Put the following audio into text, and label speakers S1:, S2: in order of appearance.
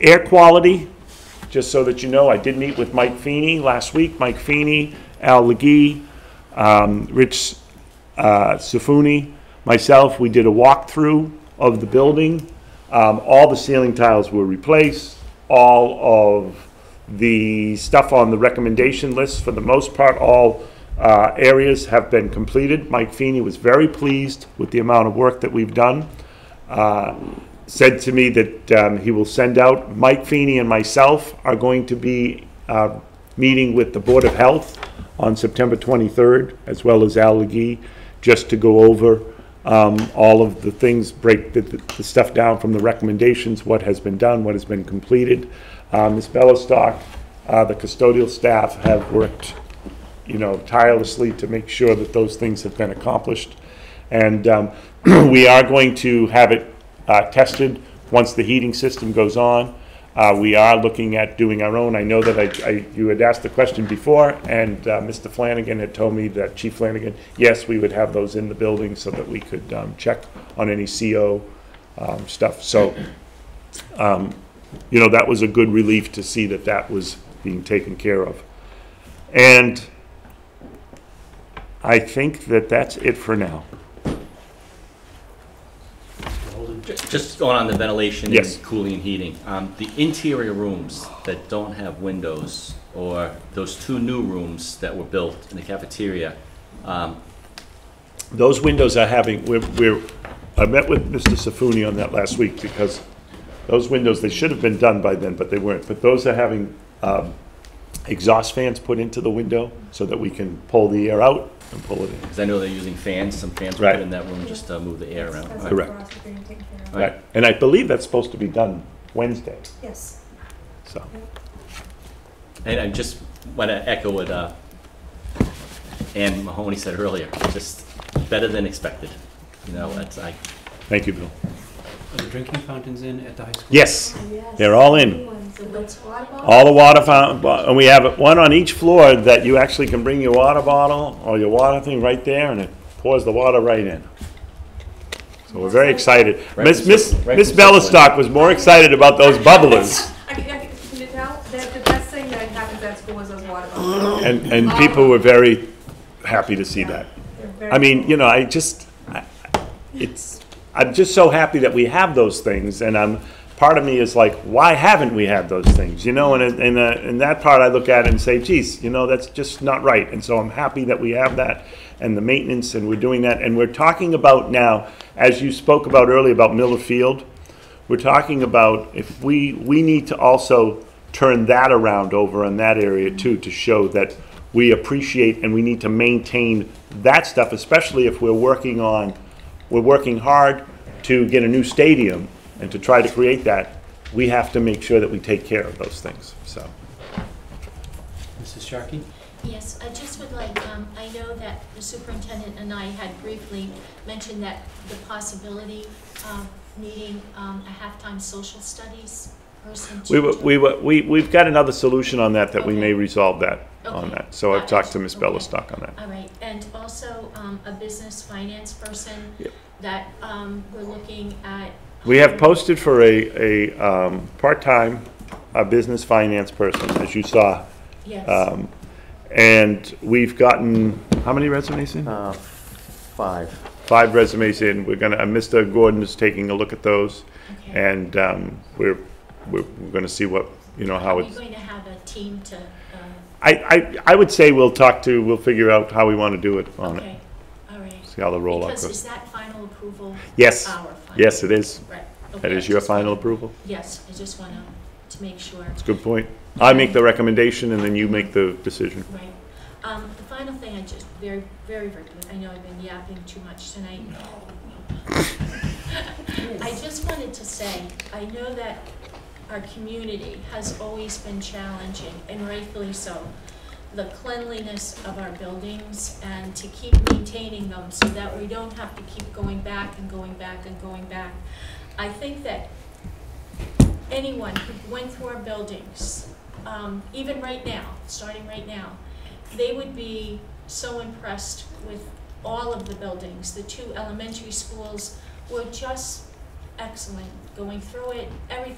S1: Air quality, just so that you know, I did meet with Mike Feeney last week. Mike Feeney, Al Legee, um, Rich uh, Sifuni, myself, we did a walkthrough of the building. Um, All the ceiling tiles were replaced. All of the stuff on the recommendation list, for the most part, all uh, areas have been completed. Mike Feeney was very pleased with the amount of work that we've done said to me that um, he will send out, Mike Feeney and myself are going to be uh, meeting with the Board of Health on September 23rd, as well as Al Legee, just to go over um, all of the things, break the- the stuff down from the recommendations, what has been done, what has been completed. Uh, Ms. Bellistock, uh, the custodial staff have worked you know, tirelessly to make sure that those things have been accomplished. And um, we are going to have it uh, tested once the heating system goes on. Uh, We are looking at doing our own. I know that I- I, you had asked the question before, and uh, Mr. Flanagan had told me that, Chief Flanagan, yes, we would have those in the building so that we could um, check on any CO um, stuff. So, um, you know, that was a good relief to see that that was being taken care of. And I think that that's it for now.
S2: Ju- Just going on the ventilation
S1: Yes.
S2: and cooling and heating, um, the interior rooms that don't have windows, or those two new rooms that were built in the cafeteria, um,
S1: Those windows are having, we're, we're, I met with Mr. Safuni on that last week because those windows, they should have been done by then, but they weren't. But those are having um, exhaust fans put into the window so that we can pull the air out and pull it in.
S2: because I know they're using fans, some fans were
S1: Right.
S2: put in that room just to move the air around. All right.
S1: Correct.
S2: Right.
S1: And I believe that's supposed to be done Wednesday,
S3: Yes.
S1: so.
S2: And I just want to echo what uh, Ann Mahoney said earlier, just better than expected. You know, that's, I,
S1: Thank you, Bill.
S4: Are the drinking fountains in at the high school?
S1: Yes,
S3: Yes.
S1: They're all in.
S3: So that's water bottle?
S1: all the water fountain, and we have one on each floor that you actually can bring your water bottle or your water thing right there and it pours the water right in. So we're very excited.
S2: Right
S1: Miss,
S2: from
S1: Miss,
S2: Circle- right
S1: Miss
S2: from Circle Line.
S1: Bellistock was more excited about those bubblers.
S5: I can, I can, you know, that the best thing that happens at school is those water bottles.
S1: And, and people were very happy to see that.
S5: They're very
S1: I mean,
S5: cool.
S1: you know, I just, I- it's, I'm just so happy that we have those things, and I'm, part of me is like, why haven't we had those things, you know? And, it- and, uh, and that part I look at and say, geez, you know, that's just not right, and so I'm happy that we have that, and the maintenance, and we're doing that, and we're talking about now, as you spoke about earlier about Miller Field, we're talking about if we, we need to also turn that around over in that area too, to show that we appreciate and we need to maintain that stuff, especially if we're working on, we're working hard to get a new stadium and to try to create that. We have to make sure that we take care of those things, so.
S4: Mrs. Sharkey?
S6: Yes, I just would like, um, I know that the superintendent and I had briefly mentioned that the possibility of needing, um, a halftime social studies person to.
S1: We, were- we, were- we, we've got another solution on that, that we may
S6: Okay.
S1: resolve that, on
S6: Okay.
S1: that. So I've talked to Ms.
S6: Okay.
S1: Bellistock on that.
S6: All right, and also, um, a business finance person
S1: Yep.
S6: that, um, we're looking at. um,
S1: We have posted for a, a, um, part-time, uh business finance person, as you saw.
S6: Yes,
S1: Um, and we've gotten, how many resumes in?
S7: Uh, Five.
S1: Five resumes in. We're gonna, uh, Mr. Gordon is taking a look at those.
S6: okay.
S1: And, um, we're, we're, we're gonna see what, you know, how
S6: Are you
S1: it's.
S6: going to have a team to, uh,
S1: I, I, I would say we'll talk to, we'll figure out how we wanna do it on it.
S6: okay, all right.
S1: See how the rollout
S6: Because
S1: goes.
S6: is that final approval?
S1: Yes,
S6: Our final?
S1: yes, it is.
S6: Right.
S1: That
S6: okay,
S1: is your
S6: just wanted-
S1: final approval.
S6: Yes, I just want to, to make sure.
S1: It's a good point. I make the recommendation and then you make the decision.
S6: Right. Um, the final thing I just, very, very, very, I know I've been yapping too much tonight. I just wanted to say, I know that our community has always been challenging, and rightfully so. The cleanliness of our buildings and to keep maintaining them so that we don't have to keep going back and going back and going back. I think that anyone who went through our buildings, um, even right now, starting right now, they would be so impressed with all of the buildings. The two elementary schools were just excellent going through it. Everything